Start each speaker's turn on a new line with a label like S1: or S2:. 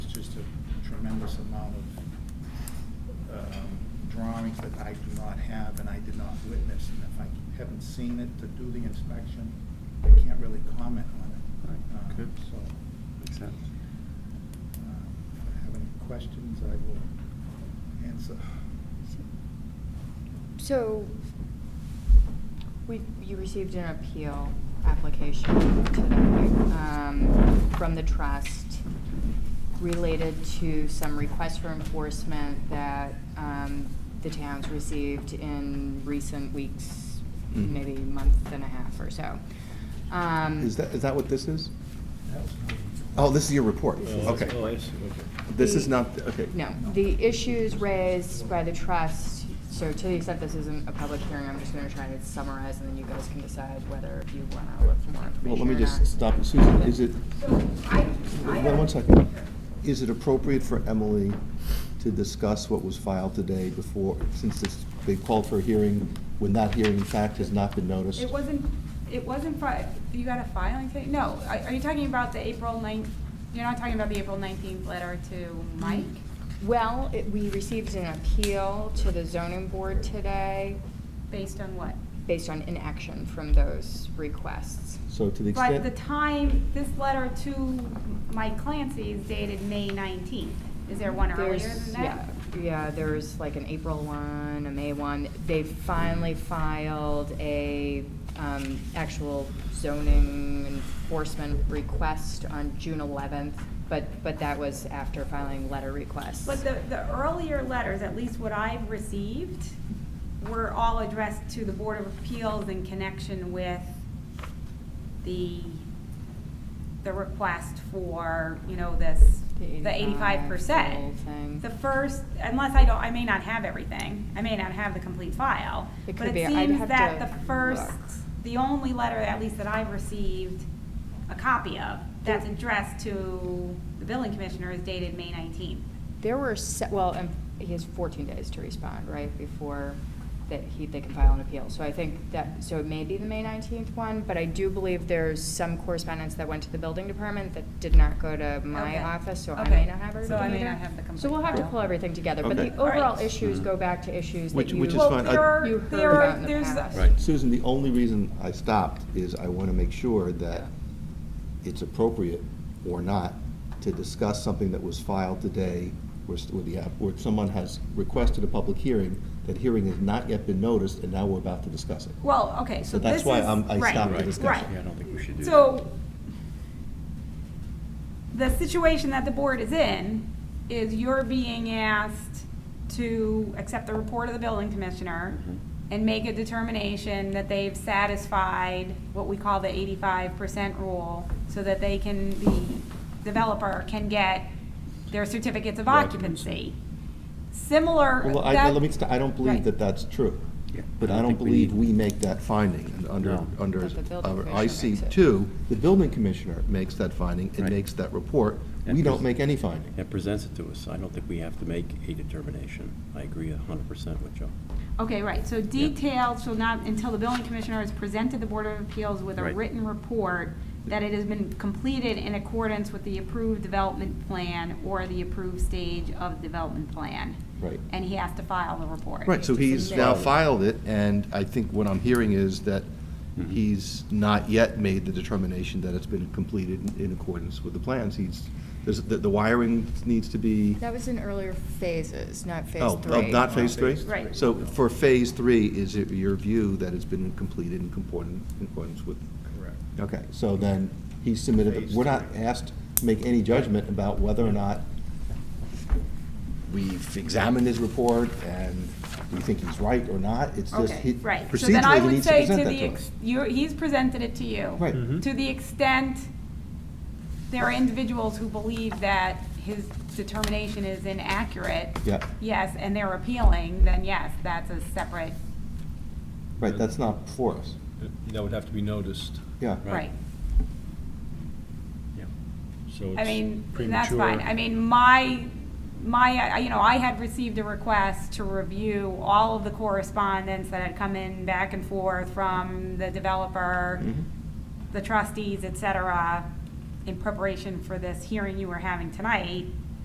S1: tremendous amount of um, drawings that I do not have and I did not witness. And if I haven't seen it to do the inspection, I can't really comment on it.
S2: Right,
S1: Um,
S2: good.
S1: So,
S2: Makes sense.
S1: um, if I have any questions, I will answer.
S3: So, we, you received an appeal application today, um, from the trust related to some requests for enforcement that, um, the town's received in recent weeks,
S2: Mhm.
S3: maybe month and a half or so. Um,
S2: Is that, is that what this is?
S1: That was my-
S2: Oh, this is your report? Okay.
S4: Oh, I see, okay.
S2: This
S3: The-
S2: is not, okay.
S3: No, the issues raised by the trust, so to the extent this isn't a public hearing, I'm just gonna try to summarize, and then you guys can decide whether you wanna look for more information
S2: Well, let me
S3: or
S2: just
S3: not.
S2: stop. it. Susan, is it,
S5: So I, I
S2: one one second. Is it appropriate for Emily to discuss what was filed today before, since this, they called for a hearing when that hearing in fact has not been noticed?
S5: It wasn't, it wasn't, fi- you got a filing thing? No, are are you talking about the April 9th, you're not talking about the April 19th letter to Mike?
S3: Well, it, we received an appeal to the zoning board today
S5: Based on what?
S3: based on inaction from those requests.
S2: So to the
S5: But the
S2: extent,
S5: time, this letter to Mike Clancy is dated May 19th. Is there one earlier
S3: There's-
S5: than that?
S3: Yeah, yeah, there's like an April one, a May one. They finally filed a um, actual zoning enforcement request on June eleventh, but, but that was after filing letter requests.
S5: But the, the earlier letters, at least what I've received, were all addressed to the Board of Appeals in connection with the, the request for, you know, this,
S3: The
S5: the eighty-five
S3: 85%, the whole
S5: percent.
S3: thing.
S5: The first, unless I don't, I may not have everything, I may not have the complete file.
S3: It
S5: But
S3: could be.
S5: it
S3: I'd
S5: seems
S3: have
S5: that
S3: to
S5: the first,
S3: look.
S5: the only letter, at least that I've received a copy of, that's addressed to the building commissioner is dated May nineteenth.
S3: There were, se- well, and he has 14 days to respond, right, before that he, they can file an appeal. So I think that, so it may be the May 19th one, but I do believe there's some correspondence that went to the building department that did not go to my
S5: Okay.
S3: office, so I
S5: Okay.
S3: may not have
S5: So I
S3: everything
S5: may
S3: either.
S5: not have the complete.
S3: So we'll have to
S5: file.
S3: pull everything together, but the
S2: Okay.
S3: overall
S5: Alright.
S3: issues
S2: Mhm.
S3: go back to issues that
S2: Which-
S3: you.
S2: which is
S5: Well,
S2: fine. I-
S5: there are,
S3: You heard
S5: there
S3: about in the
S5: are, there's,
S3: past.
S2: right, Susan, the only reason I stopped is I want to make sure that it's appropriate or not to discuss something that was filed today where, s- where the, app- where someone has requested a public hearing, that hearing has not yet been noticed, and now we're about to discuss it.
S5: well, okay, so
S2: So
S5: this
S2: that's
S5: is.
S2: why I'm- I
S5: right,
S2: stopped the
S4: Right.
S2: discussion.
S5: right.
S4: Yeah, I don't think we should do that.
S5: So, the situation that the board is in is you're being asked to accept the report of the building commissioner
S4: Mhm.
S2: Mm-hmm.
S5: and make a determination that they've satisfied what we call the eighty-five percent rule, so that they can, the developer can get their certificates of occupancy.
S4: Occupancy.
S5: Similar.
S2: Well, I,
S5: that-
S2: let me, st- I don't believe
S5: Right.
S2: that that's true.
S4: Yeah,
S2: But
S4: I
S2: I
S4: don't
S2: don't
S4: think we
S2: believe
S4: need-
S2: we make that finding and under,
S4: No.
S2: under
S3: But the building
S2: our
S3: commissioner makes
S2: IC
S3: it.
S2: two. The building commissioner makes that finding and
S4: Right.
S2: makes that report.
S4: And
S2: We don't
S4: pres-
S2: make any finding.
S4: That presents it to us. I don't think we have to make a determination. I agree a hundred percent with Joe.
S5: Okay, right, so details shall not, until the building commissioner has presented the Board of Appeals with a
S4: Right.
S5: written report that it has been completed in accordance with the approved development plan or the approved stage of development plan.
S2: Right.
S5: And he has to file the report.
S2: Right, so he's now
S4: Submit.
S2: filed it, and I think what I'm hearing is that
S4: Mhm.
S2: Mm-hmm. he's not yet made the determination that it's been completed in- in accordance with the plans. He's, there's, the, the wiring needs to be.
S3: That was in earlier phases, not phase
S2: Oh,
S3: three.
S2: oh, not phase three?
S5: Right.
S2: So for phase three, is it your view that it's been completed in concordance, in accordance with?
S1: Correct.
S2: Okay, so then he submitted,
S1: Phase
S2: we're not
S1: three.
S2: asked to make any judgment about whether or not we've examined his report and we think he's right or not. It's just, he-
S5: Okay, right. So then
S2: procedurally,
S5: I
S2: he
S5: would
S2: needs to
S5: say
S2: present
S5: to
S2: that
S5: the,
S2: to
S5: ex- oh.
S2: us.
S5: you, he's presented it to you.
S2: Right.
S6: Mm-hmm.
S2: Mhm.
S5: To the extent there are individuals who believe that his determination is inaccurate.
S2: Yeah.
S5: Yes, and they're appealing, then yes, that's a separate,
S2: Right, that's not for us.
S6: That would have to be noticed.
S2: Yeah.
S4: Right.
S5: right.
S4: Yeah.
S6: So
S5: I
S6: it's
S5: mean, that's
S6: premature.
S5: fine. I mean, my, my, uh, you know, I had received a request to review all of the correspondence that had come in back and forth from the developer,
S6: Mm-hmm.
S2: Mhm.
S5: the trustees, et cetera, in preparation for this hearing you were having tonight.